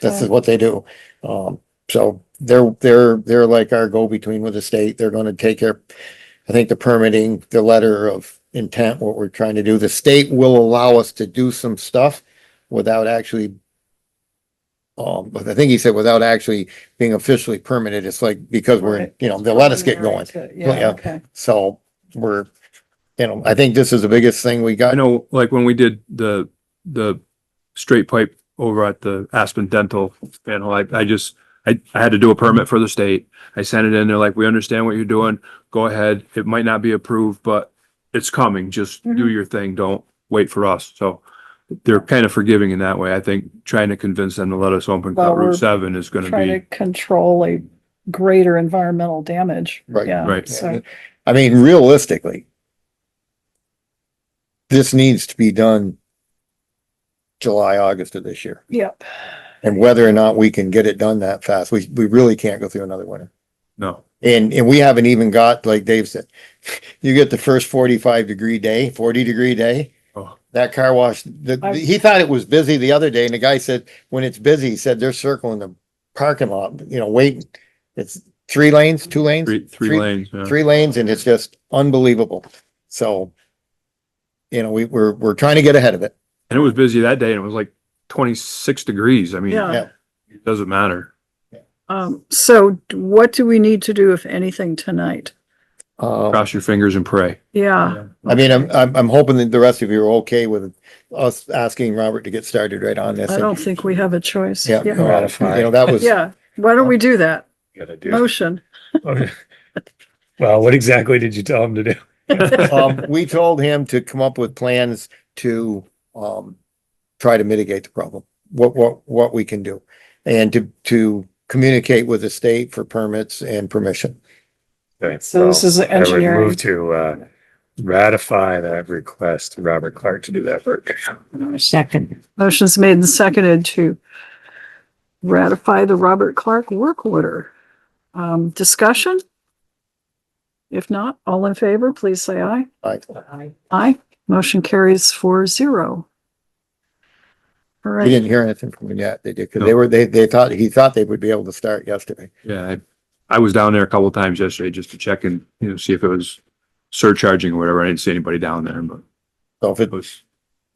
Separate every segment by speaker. Speaker 1: This is what they do. Um, so they're, they're, they're like our go-between with the state. They're gonna take care. I think the permitting, the letter of intent, what we're trying to do, the state will allow us to do some stuff without actually. Um, but I think he said without actually being officially permitted. It's like, because we're,
Speaker 2: Right.
Speaker 1: you know, they'll let us get going. Yeah.
Speaker 2: Yeah, okay.
Speaker 1: So we're, you know, I think this is the biggest thing we
Speaker 3: I
Speaker 1: got.
Speaker 3: know, like when we did the, the straight pipe over at the Aspen Dental panel, I, I just, I, I had to do a permit for the state. I sent it in, they're like, we understand what you're doing, go ahead, it might not be approved, but it's coming, just do
Speaker 2: Mhm.
Speaker 3: your thing, don't wait for us, so. They're kind of forgiving in that way, I think, trying to convince them to let us open
Speaker 2: Well,
Speaker 3: Cut
Speaker 2: we're
Speaker 3: Route seven is gonna
Speaker 2: Try to
Speaker 3: be,
Speaker 2: control a greater environmental damage.
Speaker 1: Right.
Speaker 2: Yeah,
Speaker 3: Right.
Speaker 2: So,
Speaker 1: I mean, realistically. This needs to be done. July, August of this year,
Speaker 2: yep.
Speaker 1: and whether or not we can get it done that fast, we, we really can't go through another winter.
Speaker 3: no,
Speaker 1: And, and we haven't even got, like Dave said, you get the first forty-five degree day, forty degree day.
Speaker 3: Oh.
Speaker 1: That car wash, the,
Speaker 2: I-
Speaker 1: he thought it was busy the other day and the guy said, when it's busy, he said they're circling the parking lot, you know, waiting. It's three lanes, two lanes?
Speaker 3: three, three lanes, yeah.
Speaker 1: three lanes and it's just unbelievable. So, you know, we, we're, we're trying to get ahead of it.
Speaker 3: And it was busy that day, and it was like twenty-six degrees, I mean,
Speaker 2: Yeah.
Speaker 1: Yeah.
Speaker 3: it doesn't matter.
Speaker 2: Um, so d- what do we need to do, if anything, tonight? Oh.
Speaker 1: Uh,
Speaker 3: Cross your fingers and pray.
Speaker 2: Yeah,
Speaker 1: I mean, I'm, I'm, I'm hoping that the rest of you are okay with us asking Robert to get started right on this.
Speaker 2: I don't think we have a choice.
Speaker 1: Yeah,
Speaker 2: Yeah,
Speaker 1: uh, you know, that was,
Speaker 2: yeah. Why don't we do that?
Speaker 4: Gotta do.
Speaker 2: Motion.
Speaker 4: Well, what exactly did you tell him to do?
Speaker 1: um, we told him to come up with plans to, um, try to mitigate the problem, what, what, what we can do. And to, to communicate with the state for permits and permission.
Speaker 4: Okay,
Speaker 2: So this
Speaker 4: well,
Speaker 2: is the
Speaker 4: I would
Speaker 2: engineering.
Speaker 4: Move to, uh, ratify that request to Robert Clark to do that work.
Speaker 5: Second,
Speaker 2: Motion's made and seconded to ratify the Robert Clark work order. Um, discussion? If not, all in favor, please say aye.
Speaker 1: Like,
Speaker 2: Aye. Motion carries four zero. All
Speaker 1: we
Speaker 2: right,
Speaker 1: didn't hear anything from him yet. They did, cause they were, they, they thought, he thought they would be able to start yesterday.
Speaker 3: Yeah, I, I was down there a couple of times yesterday just to check and, you know, see if it was surcharging or whatever. I didn't see anybody down there, but
Speaker 1: So if it,
Speaker 3: it was,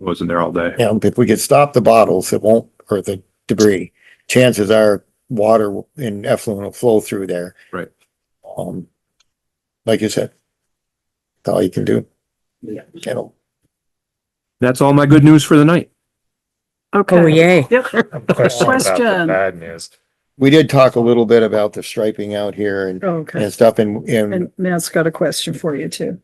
Speaker 3: wasn't there all day.
Speaker 1: you know, if we could stop the bottles, it won't, or the debris, chances are water and effluent will flow through there.
Speaker 3: Right.
Speaker 1: Um, like you said, that's all you can do.
Speaker 5: Yeah.
Speaker 1: You know,
Speaker 3: That's all my good news for the night.
Speaker 5: oh
Speaker 2: okay.
Speaker 5: yay,
Speaker 2: Yep,
Speaker 4: Question about the
Speaker 2: Question.
Speaker 4: bad news.
Speaker 1: we did talk a little bit about the striping out here and,
Speaker 2: okay.
Speaker 1: and stuff and, and
Speaker 2: And Matt's got a question for you too.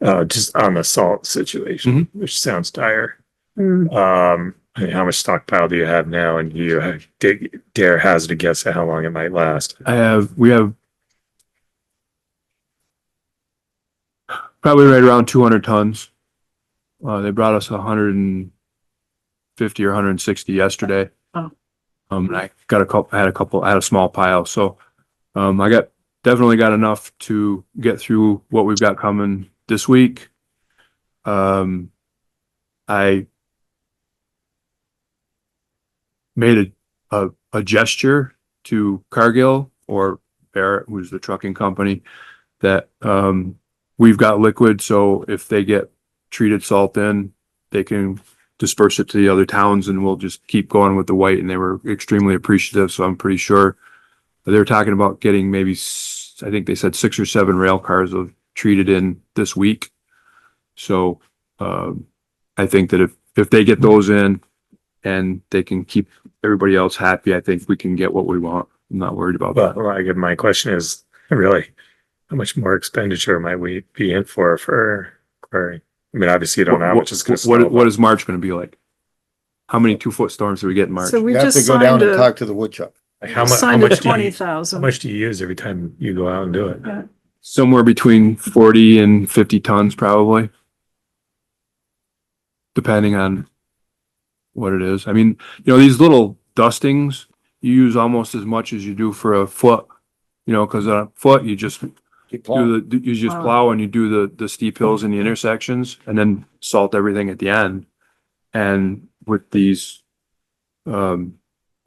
Speaker 4: Oh, just on the salt situation, which sounds dire.
Speaker 2: Hmm,
Speaker 4: Um, I mean, how much stockpile do you have now? And you have- dig- dare hazard a guess at how long it might last?
Speaker 3: I have, we have probably right around two hundred tons. Uh, they brought us hundred and fifty or hundred and sixty yesterday.
Speaker 2: Oh.
Speaker 3: Um, and I got a couple, I had a couple, I had a small pile, so, um, I got, definitely got enough to get through what we've got coming this week. Um, I made a, a, a gesture to Cargill or Barrett, who's the trucking company, that um, we've got liquid, so if they get treated salt in, they can disperse it to the other towns and we'll just keep going with the white. And they were extremely appreciative, so I'm pretty sure they're talking about getting maybe, s- I think they said six or seven rail cars of treated in this week. So um, I think that if, if they get those in and they can keep everybody else happy, I think we can get what we want. I'm not worried about
Speaker 4: Well,
Speaker 3: that.
Speaker 4: like, my question is really, how much more expenditure might we be in for, for, for, I mean, obviously you don't know how much it's gonna.
Speaker 3: What-
Speaker 4: snow,
Speaker 3: What, what is March gonna be like? How many two foot storms do we get in March?
Speaker 2: So we
Speaker 1: you have
Speaker 2: just
Speaker 1: to go down
Speaker 2: signed
Speaker 1: and
Speaker 2: a,
Speaker 1: talk to the woodchuck.
Speaker 4: Like, how mu- how
Speaker 2: signed a
Speaker 4: much, do
Speaker 2: twenty
Speaker 4: you- how
Speaker 2: thousand.
Speaker 4: much do you use every time you go out and do it?
Speaker 3: Somewhere between forty and fifty tons probably. Depending on what it is. I mean, you know, these little dustings, you use almost as much as you do for a foot. You know, cause on a foot, you just
Speaker 1: Keep plowing.
Speaker 3: do the, you just
Speaker 2: Wow.
Speaker 3: plow and you do the, the steep hills and the intersections and then salt everything at the end. And with these, um,